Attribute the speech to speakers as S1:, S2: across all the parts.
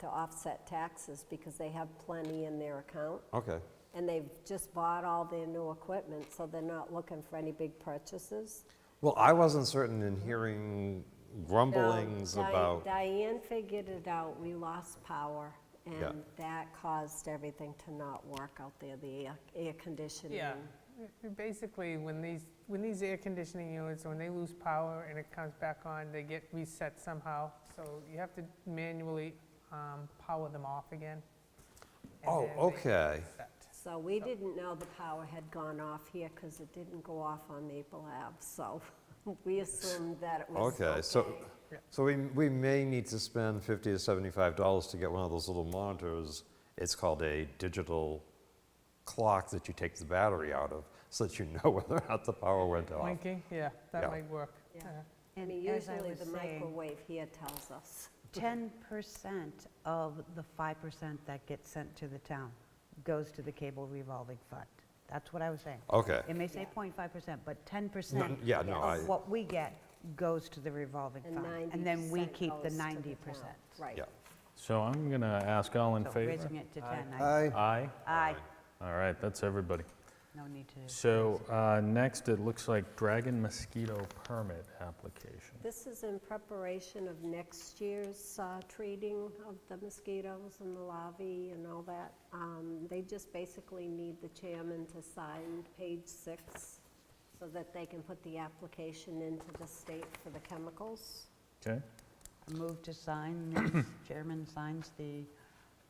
S1: to offset taxes because they have plenty in their account.
S2: Okay,
S1: And they've just bought all their new equipment, so they're not looking for any big purchases.
S2: well, I wasn't certain in hearing
S1: No,
S2: grumblings
S1: Di-
S2: about,
S1: Diane figured it out, we lost power,
S2: Yeah.
S1: and that caused everything to not work out there, the air- air conditioning.
S3: Yeah, Uh, basically, when these, when these air conditioning units, when they lose power and it comes back on, they get reset somehow. So you have to manually um, power them off again. and
S2: Oh,
S3: then they
S2: okay.
S3: reset.
S1: So we didn't know the power had gone off here because it didn't go off on Maple Ave, so we assumed that it was okay.
S2: okay, so, so we, we may need to spend 50 to 75 dollars to get one of those little monitors. It's called a digital clock that you take the battery out of, so that you know whether or not the power went off.
S3: Blinking, yeah,
S2: Yeah.
S3: that might work.
S1: Yeah.
S3: Uh,
S1: I
S4: And
S1: mean,
S4: as I
S1: usually
S4: was
S1: the
S4: saying,
S1: microwave here tells us.
S4: 10% of the 5% that gets sent to the town goes to the cable revolving fund. That's what I was saying.
S2: Okay,
S4: It may say
S1: Yeah.
S4: 0.5%, but 10%
S2: yeah, no, I-
S4: of what we get goes to the revolving
S1: And
S4: fund.
S1: 90%
S4: And then we keep the
S1: goes to
S4: 90%.
S1: town. Right.
S2: yeah.
S5: So I'm going to ask all in
S4: So
S5: favor?
S4: raising it to 10, I-
S2: Aye.
S5: Aye?
S4: aye,
S5: All right, that's everybody.
S4: no need to.
S5: So uh, next, it looks like dragon mosquito permit application.
S1: This is in preparation of next year's uh, treating of the mosquitoes and the larvae and all that. Um, They just basically need the chairman to sign page six so that they can put the application into the state for the chemicals.
S5: Okay?
S4: Move to sign, as chairman signs the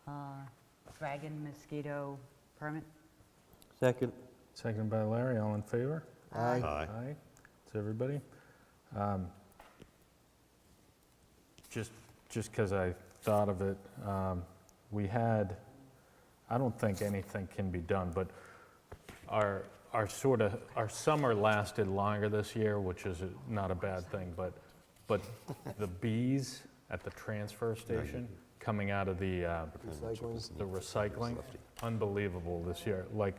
S4: uh, dragon mosquito permit.
S6: Second.
S5: Seconded by Larry, all in favor?
S2: Aye.
S5: Aye. To everybody. Um, Just, just because I thought of it, um, we had, I don't think anything can be done, but our, our sort of, our summer lasted longer this year, which is a- not a bad thing, but, but the bees at the transfer station coming out of the, uh, the recycling, unbelievable this year. Like,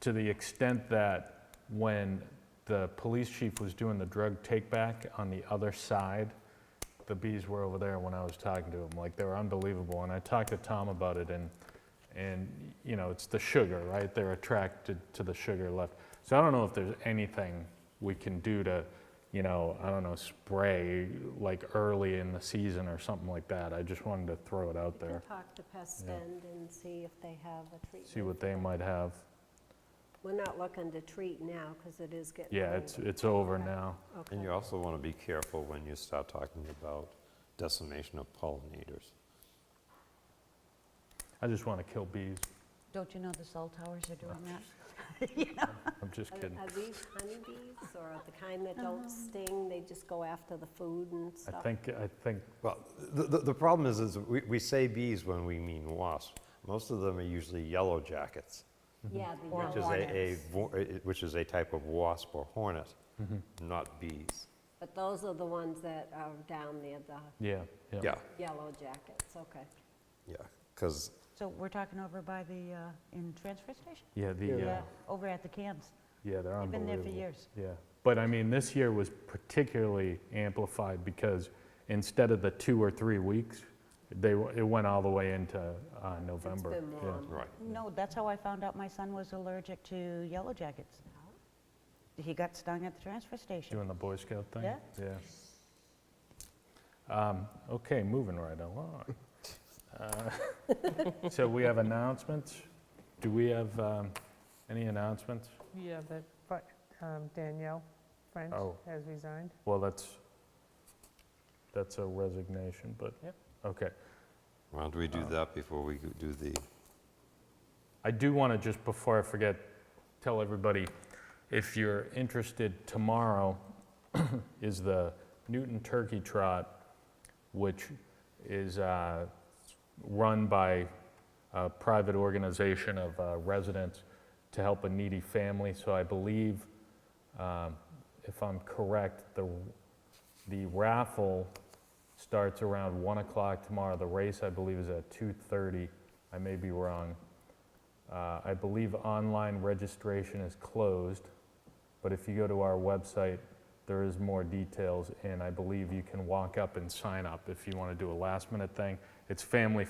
S5: to the extent that when the police chief was doing the drug take-back on the other side, the bees were over there when I was talking to him. Like, they were unbelievable. And I talked to Tom about it, and, and, you know, it's the sugar, right? They're attracted to the sugar left. So I don't know if there's anything we can do to, you know, I don't know, spray like early in the season or something like that. I just wanted to throw it out
S1: We
S5: there,
S1: can talk to Pest
S5: Yeah.
S1: End and see if they have a treatment.
S5: see what they might have.
S1: We're not looking to treat now because it is getting.
S5: Yeah,
S1: older.
S5: it's, it's over now.
S1: Okay.
S2: And you also want to be careful when you start talking about decimation of pollinators.
S5: I just want to kill bees.
S4: Don't you know the cell towers are doing that?
S5: I'm just
S1: Are-
S5: kidding.
S1: Are these honeybees or are the kind that don't sting, they just go after the food and
S5: I
S1: stuff?
S5: think, I think,
S2: Well, the, the, the problem is, is we, we say bees when we mean wasps. Most of them are usually yellow jackets,
S1: Yeah, the
S4: Or
S2: which is
S1: yellow
S2: a, a,
S1: ones.
S2: vo- eh, which is a type of wasp or hornet, not bees.
S1: But those are the ones that are down there, the
S5: yeah,
S2: Yeah,
S5: yeah.
S1: yellow jackets, okay.
S2: yeah, because,
S4: So we're talking over by the, uh, in transfer station?
S5: Yeah, the, uh,
S4: Over at the cans.
S5: yeah, they're
S4: I've been there
S5: unbelievable.
S4: for years.
S5: Yeah, but I mean, this year was particularly amplified because instead of the two or three weeks, they, w- it went all the way into uh, November.
S1: been
S5: Yeah.
S1: warm.
S2: right,
S4: No, that's how I found out my son was allergic to yellow jackets. He got stung at the transfer station.
S5: Doing the Boy Scout thing?
S4: Yeah.
S5: Yeah. Um, Okay, moving right along. Uh, So we have announcements. Do we have um, any announcements?
S3: Yeah, that, but um, Danielle French
S5: Oh.
S3: has resigned.
S5: Well, that's, that's a resignation, but, okay.
S2: why don't we do that before we go- do the,
S5: I do want to, just before I forget, tell everybody, if you're interested, tomorrow is the Newton Turkey Trot, which is uh, run by a private organization of uh, residents to help a needy family. So I believe, um, if I'm correct, the, the raffle starts around 1 o'clock tomorrow. The race, I believe, is at 2:30. I may be wrong. Uh, I believe online registration is closed, but if you go to our website, there is more details, and I believe you can walk up and sign up if you want to do a last-minute thing. It's family